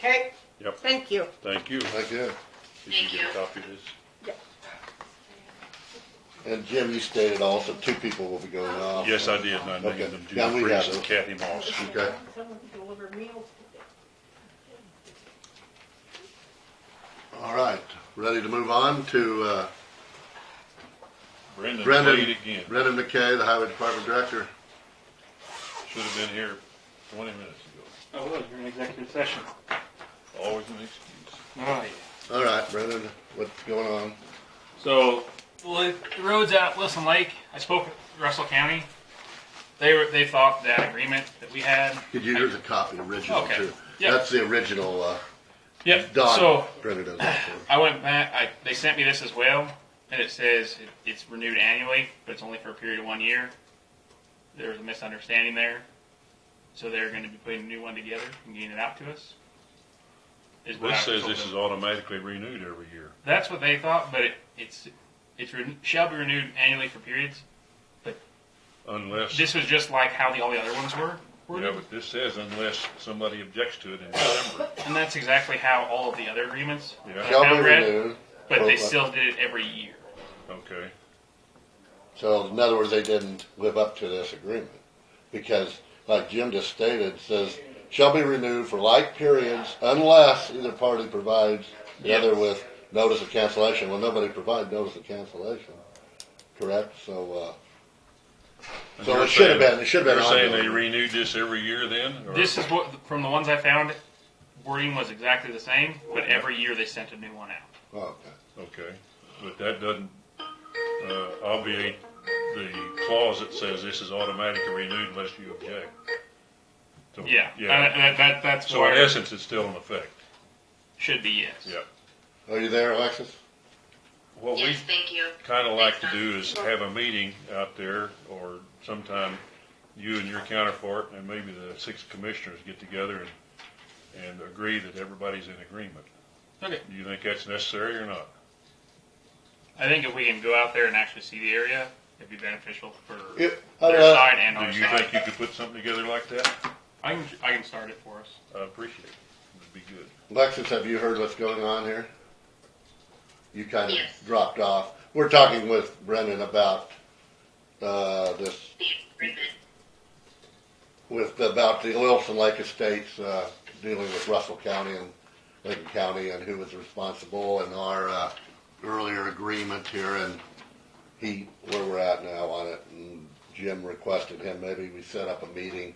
Okay, Yep, thank you. thank you. Did Thank you. you get a copy of this? And Jim, you stated also two people will be going off. Yes, I did, and I Okay. named them Yeah, Judith we have Priest and it. Kathy Moss. Okay. Someone to deliver meals today. All right, ready to move on to uh, Brendan Brendan, played again. Brendan McKay, the Highway Department Director. Should have been here twenty minutes ago. Oh, well, you're in executive session. Oh, Always an excuse. Oh, yeah. All right, Brendan, what's going on? So, well, the roads at Wilson Lake, I spoke with Russell County. They were, they thought that agreement that we had. Did you use a copy, original Okay. too? Yeah. That's the original, uh, Yep, so Don, Brendan does that for. I went back, I, they sent me this as well, and it says it, it's renewed annually, but it's only for a period of one year. There was a misunderstanding there. So they're gonna be putting a new one together and getting it out to us. Is This what I was says told this them. is automatically renewed every year. That's what they thought, but it, it's, it's, re- shall be renewed annually for periods. Unless, yeah, This was just like how the, all the other ones were, worded, but this says unless somebody objects to it in December. and that's exactly how all of the other agreements Yeah. that I Shall be found read, renewed. But they still did it every year. Okay, So in other words, they didn't live up to this agreement. Because like Jim just stated, it says, shall be renewed for like periods unless either party provides the other with notice of cancellation. Well, nobody provided notice of cancellation, correct? So, uh, And so you're it should have saying- been, it should have you're been saying they ongoing. renewed this every year then? or- This is what, from the ones I found, wording was exactly the same, but every year they sent a new one out. Oh, okay. Okay, but that doesn't uh, obviate the clause that says this is automatically renewed unless you object. So, Yeah, Uh, Yeah, that, that, that's so in where it essence, it's still in effect, should be, yes. yeah. Are you there, Alexis? What we Yes, thank you. kinda like to do is have a meeting out there, or sometime you and your counterpart, and maybe the six commissioners get together and, and agree that everybody's in agreement. Okay. Do you think that's necessary or not? I think if we can go out there and actually see the area, it'd be beneficial for Yeah, I'd, their uh, side and Do our you think side. you could put something together like that? I can, I can start it for us. I appreciate it, it'd be good. Alexis, have you heard what's going on here? You kind of Yes. dropped off. We're talking with Brendan about, uh, this The agreement. with about the Wilson Lake Estates uh, dealing with Russell County and Lincoln County and who was responsible and our uh, earlier agreement here and he where we're at now on it. And Jim requested him maybe we set up a meeting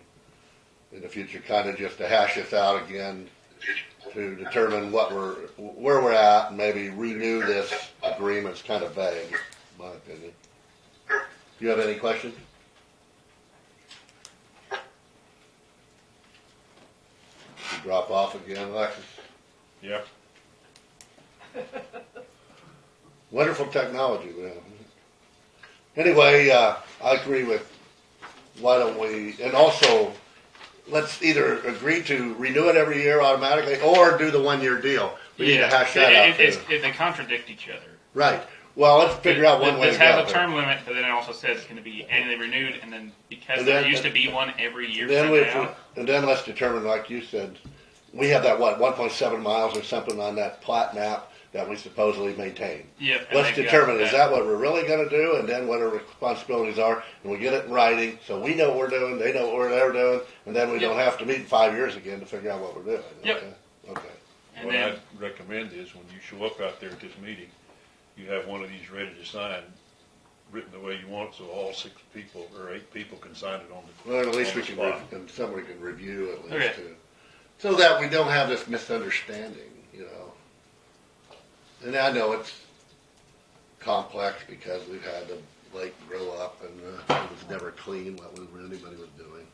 in the future, kind of just to hash this out again to determine what we're where we're at and maybe renew this agreement. It's kind of vague, in my opinion. Do you have any questions? You drop off again, Alexis. Yeah, Wonderful technology we have. Anyway, uh, I agree with, why don't we, and also, let's either agree to renew it every year automatically or do the one-year deal. We need to hash that It- out it- it's- too. it- They contradict each other. Right. Well, let's figure out one way to This has go. a there. term limit, but then it also says it's gonna be annually renewed, and then because And there then- used to be one every year And Then we, somehow. and then let's determine, like you said, we have that, what, one point seven miles or something on that plat map that we supposedly maintain. Yep. and Let's they've got determine, is that what we're really gonna do, and then what our responsibilities are, and we get it in writing, so we know what we're doing, they know what we're- they're doing, and then we don't have to meet in five years again to figure out what we're doing. Yep. okay? Okay, And what then, I'd recommend is when you show up out there at this meeting, you have one of these ready to sign, written the way you want, so all six people or eight people can sign it on the. well, at least on we the can, spot. re- and somebody can review at Okay. least too. So that we don't have this misunderstanding, you know? And I know it's complex because we've had the lake grow up and, uh, it was never clean, what we, anybody was doing.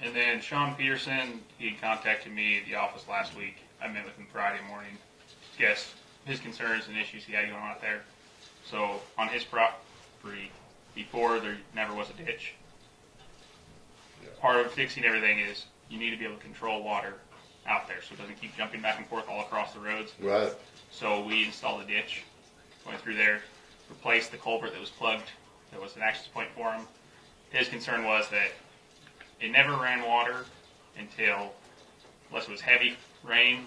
and then Sean Peterson, he contacted me at the office last week. I met with him Friday morning. Yes, his concerns and issues he had going on out there. So on his property, before there never was a ditch. Yeah. Part of fixing everything is you need to be able to control water out there, so it doesn't keep jumping back and forth all across the roads. Right. So we installed a ditch, went through there, replaced the culvert that was plugged, that was an access point for him. His concern was that it never ran water until, unless it was heavy rain,